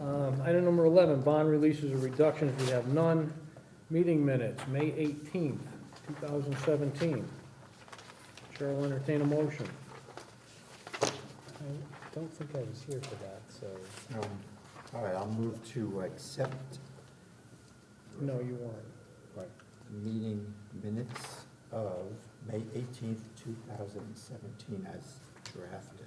Um, Item number 11, bond releases or reductions, we have none. Meeting minutes, May 18th, 2017. Chair will entertain a motion. I don't think I was here for that, so. Um, All right, I'll move to accept No, you weren't. the meeting minutes of May eighteenth, two thousand and seventeen as drafted.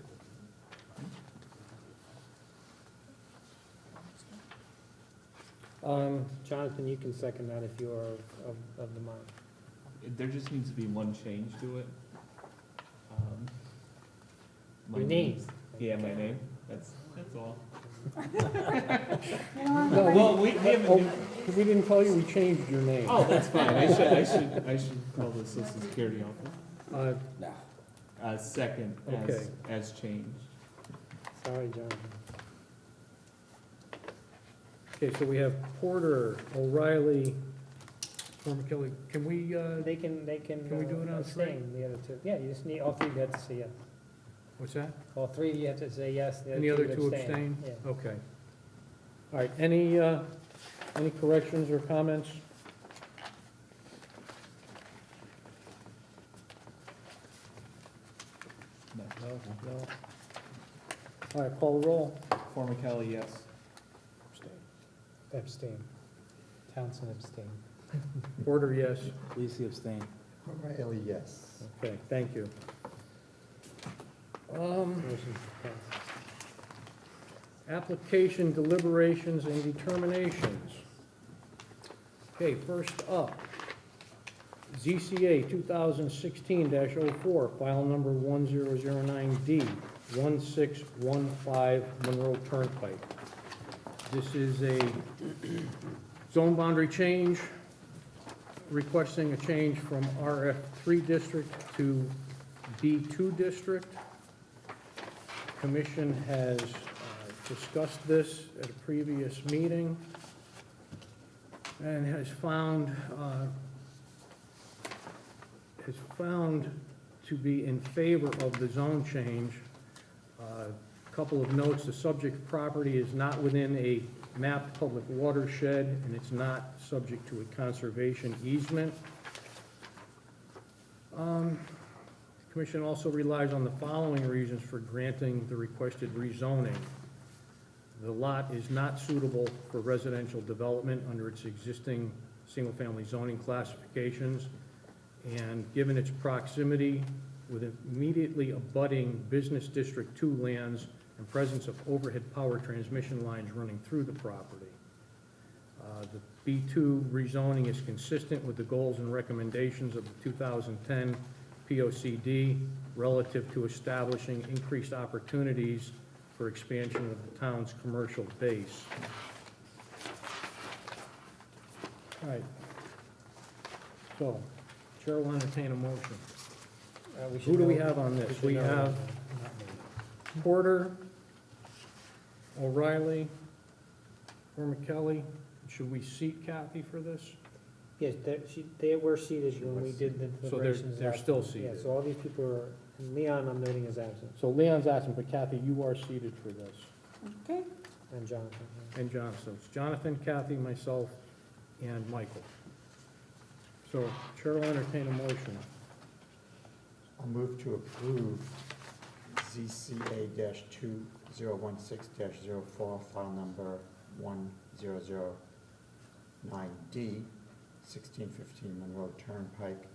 Um, Jonathan, you can second that if you are of, of the mind. It- There just needs to be one change to it. Um, my Your name. Yeah, my name, that's, that's all. No, Well, we, we haven't, oh, We didn't call you, we changed your name. oh, that's fine, I should, I should, I should call the social security office. Uh, Uh, second, as, Okay. as changed. Sorry, Jonathan. Okay, so we have Porter, O'Reilly, former Kelly. Can we, uh, They can, they can. Can we uh, do it on three? abstain, The other two, yeah, you just need, all three of you have to say yes. what's that? All three of you have to say yes, the And the other two abstain? Yeah. Okay. All right, any, uh, any corrections or comments? No. No? All right, call the roll. Former Kelly, yes. Abstain. Townsend abstain. Porter, yes. Lisi abstain. O'Reilly, yes. Okay, thank you. Um, Motion passed. application deliberations and determinations. Okay, first up, ZCA 2016-04, file number 1009D, 1615 Monroe Turnpike. This is a zone boundary change, requesting a change from RF3 district to B2 district. Commission has uh, discussed this at a previous meeting and has found, uh, has found to be in favor of the zone change. Uh, Couple of notes, the subject property is not within a mapped public watershed, and it's not subject to a conservation easement. Um, Commission also relies on the following reasons for granting the requested rezoning. The lot is not suitable for residential development under its existing single-family zoning classifications, and given its proximity with immediately abutting Business District Two lands and presence of overhead power transmission lines running through the property. Uh, The B2 rezoning is consistent with the goals and recommendations of the 2010 POCD relative to establishing increased opportunities for expansion of the town's commercial base. All right. So, Chair will entertain a motion. Uh, we Who should do we know- have on this? should We know. have Not me. Porter, O'Reilly, Kelly. Should we seat Kathy for this? Yes, they're- she- they were seated She when was we did the So they're- deliberations. they're last still time. seated. Yeah, so all these people are, and Leon, I'm noting is absent, So Leon's asking, but Kathy, you are seated for this. Okay, and Jonathan. yeah. And John, so it's Jonathan, Kathy, myself, and Michael. So Chair will entertain a motion. I'll move to approve ZCA two zero one six 4 file number one zero zero nine D, sixteen fifteen Monroe Turnpike,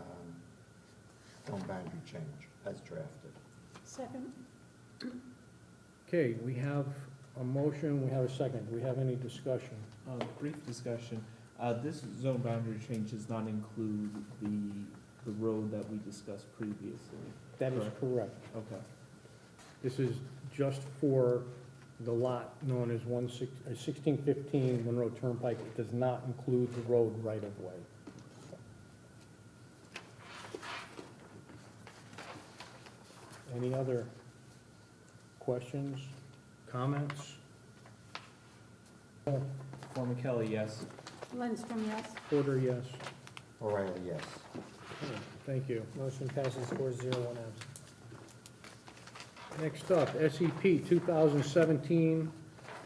um, zone boundary change as drafted. second. Okay, we have a motion, we have a second. Do we have any discussion? Uh, brief discussion, uh, this zone boundary change does not include the, the road that we discussed previously. That is Correct. correct. Okay. This is just for the lot known as one six, uh, 1615 Monroe Turnpike. It does not include the road right-of-way. Any other questions, comments? Former Kelly, yes. Lindstrom, yes. Porter, yes. O'Reilly, yes. Thank you. Motion passes four zero one absent. E Next up, SEP 2017-05,